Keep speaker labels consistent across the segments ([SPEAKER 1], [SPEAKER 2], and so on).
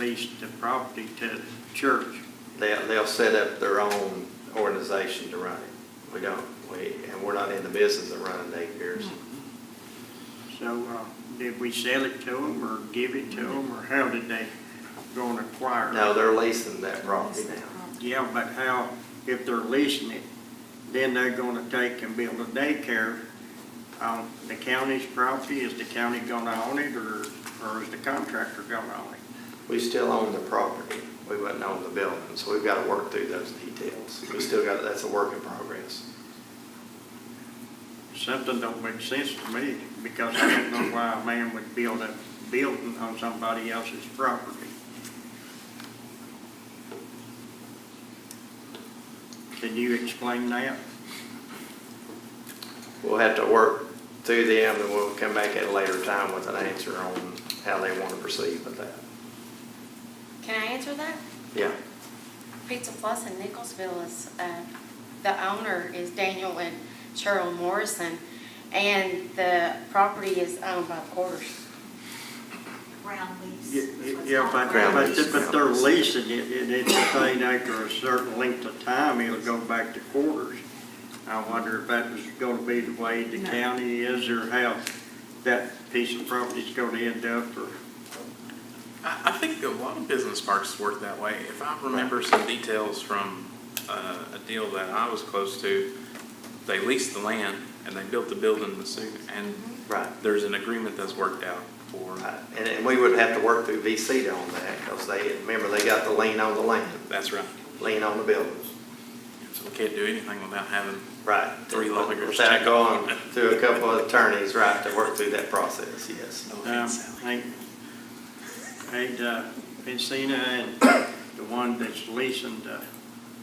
[SPEAKER 1] lease the property to the church.
[SPEAKER 2] They'll, they'll set up their own organization to run it. We don't, we, and we're not in the business of running daycares.
[SPEAKER 1] So, uh, did we sell it to them or give it to them, or how did they go and acquire it?
[SPEAKER 2] No, they're leasing that property now.
[SPEAKER 1] Yeah, but how, if they're leasing it, then they're gonna take and build a daycare on the county's property? Is the county gonna own it, or, or is the contractor gonna own it?
[SPEAKER 2] We still own the property, we wouldn't own the building, so we've got to work through those details. We still got, that's a work in progress.
[SPEAKER 1] Something don't make sense to me, because I don't know why a man would build a building on somebody else's property. Can you explain that?
[SPEAKER 2] We'll have to work through them, and we'll come back at a later time with an answer on how they want to proceed with that.
[SPEAKER 3] Can I answer that?
[SPEAKER 2] Yeah,
[SPEAKER 3] Pizza Plus in Nicholsville is, uh, the owner is Daniel and Cheryl Morrison, and the property is owned by Porter's.
[SPEAKER 4] ground lease.
[SPEAKER 1] Yeah,
[SPEAKER 4] is what's
[SPEAKER 1] Yeah, but,
[SPEAKER 4] called.
[SPEAKER 2] Ground
[SPEAKER 1] but,
[SPEAKER 2] lease.
[SPEAKER 1] but they're leasing it, and it's a thing after a certain length of time, it'll go back to quarters. I wonder if that was gonna be the way the
[SPEAKER 4] No.
[SPEAKER 1] county is, or how that piece of property's gonna end up, or,
[SPEAKER 5] I, I think a lot of business parks work that way. If I remember some details from uh, a deal that I was close to, they leased the land and they built the building to suit, and
[SPEAKER 2] right.
[SPEAKER 5] there's an agreement that's worked out for,
[SPEAKER 2] Right. And, and we would have to work through VC on that, because they, remember, they got the lien on the land,
[SPEAKER 5] that's right.
[SPEAKER 2] lien on the buildings.
[SPEAKER 5] So we can't do anything without having,
[SPEAKER 2] Right.
[SPEAKER 5] Three lawyers.
[SPEAKER 2] Without going through a couple of attorneys, right, to work through that process, yes.
[SPEAKER 5] no
[SPEAKER 1] um,
[SPEAKER 5] offense, Sally.
[SPEAKER 1] ain't, ain't, uh, Encina and the one that's leasing the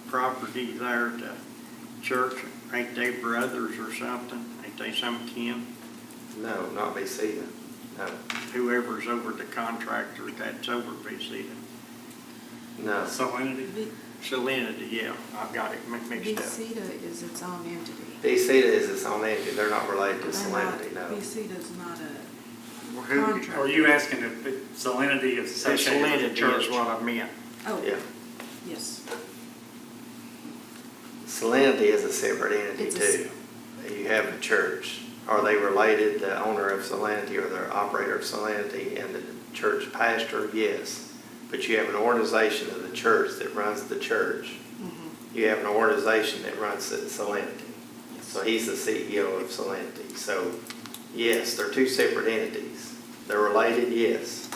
[SPEAKER 1] property there, the church, ain't they brothers or something? Ain't they some kin?
[SPEAKER 2] No, not VC, no,
[SPEAKER 1] Whoever's over the contractor, that's over VCD.
[SPEAKER 2] no.
[SPEAKER 1] Salinity?
[SPEAKER 6] V-
[SPEAKER 1] Salinity, yeah, I got it mi- mixed up.
[SPEAKER 6] VCTA is its own entity.
[SPEAKER 2] VC is its own entity, they're not related to
[SPEAKER 6] They're not-
[SPEAKER 2] Salinity, no.
[SPEAKER 6] VCTA's not a
[SPEAKER 1] Well, who-
[SPEAKER 6] contract.
[SPEAKER 7] Are you asking if it- salinity is associated with the
[SPEAKER 1] Salinity
[SPEAKER 7] church?
[SPEAKER 1] is what I meant.
[SPEAKER 2] Yeah,
[SPEAKER 6] Oh, yes.
[SPEAKER 2] Salinity is a separate entity
[SPEAKER 6] It's a
[SPEAKER 2] too. You have a church, are they related, the owner of Salinity or the operator of Salinity and the church pastor? Yes, but you have an organization of the church that runs the church.
[SPEAKER 6] Mhm.
[SPEAKER 2] you have an organization that runs it, Solanity. So he's the CEO of Solanity. So, yes, they're two separate entities. They're related, yes.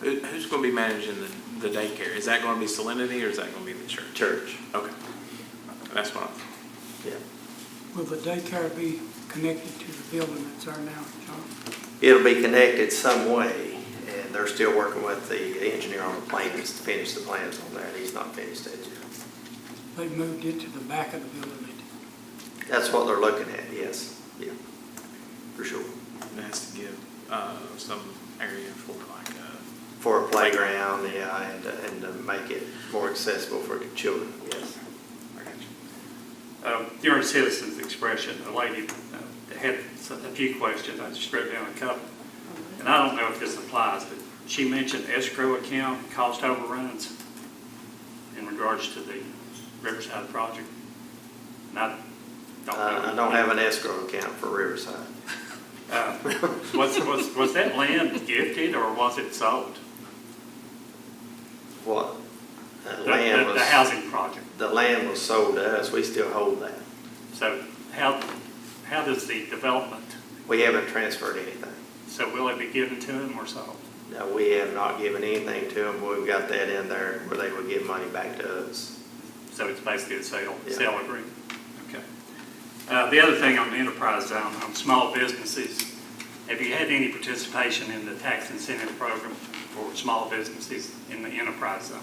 [SPEAKER 5] Who- Who's going to be managing the the daycare? Is that going to be Salinity or is that going to be the church?
[SPEAKER 2] Church,
[SPEAKER 5] Okay, that's what I.
[SPEAKER 2] yeah.
[SPEAKER 8] Will the daycare be connected to the building that's there now, John?
[SPEAKER 2] It'll be connected some way, and they're still working with the engineer on the plans to finish the plans on that. He's not finished that yet.
[SPEAKER 8] They moved it to the back of the building. they
[SPEAKER 2] That's what they're looking at, yes, yeah, for sure.
[SPEAKER 5] It has to give uh, some area for like uh,
[SPEAKER 2] For a playground, yeah, and, and to make it more accessible for children, yes.
[SPEAKER 5] I got you.
[SPEAKER 7] Uh, During citizens' expression, a lady uh, had s- a few questions, I just wrote down a couple. And I don't know if this applies, but she mentioned escrow account, cost overruns in regards to the Riverside project. And I don't know.
[SPEAKER 2] Uh, I I don't have an escrow account for Riverside.
[SPEAKER 7] Uh, Was, was, was that land gifted or was it sold?
[SPEAKER 2] What? That
[SPEAKER 7] The-
[SPEAKER 2] land
[SPEAKER 7] the- The
[SPEAKER 2] was,
[SPEAKER 7] housing project.
[SPEAKER 2] the land was sold to us, we still hold that.
[SPEAKER 7] So how, how does the development
[SPEAKER 2] We haven't transferred anything.
[SPEAKER 7] So will it be given to him or sold?
[SPEAKER 2] No, we have not given anything to them, we've got that in there where they would give money back to us.
[SPEAKER 7] So it's basically a sale,
[SPEAKER 2] Yeah.
[SPEAKER 7] sale agreement? Okay. Uh, The other thing on the enterprise zone, on small businesses, have you had any participation in the tax incentive program for small businesses in the enterprise zone?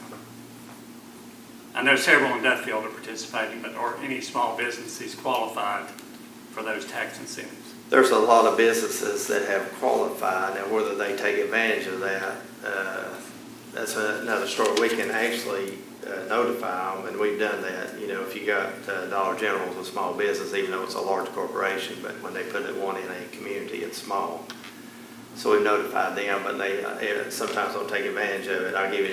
[SPEAKER 7] I know several in Duffield are participating, but are any small businesses qualified for those tax incentives?
[SPEAKER 2] There's a lot of businesses that have qualified, and whether they take advantage of that, uh, that's another story. We can actually uh, notify them, and we've done that. You know, if you got uh, Dollar General's a small business, even though it's a large corporation, but when they put it one in a community, it's small. So we've notified them, but they, uh, sometimes don't take advantage of it. I'll give you an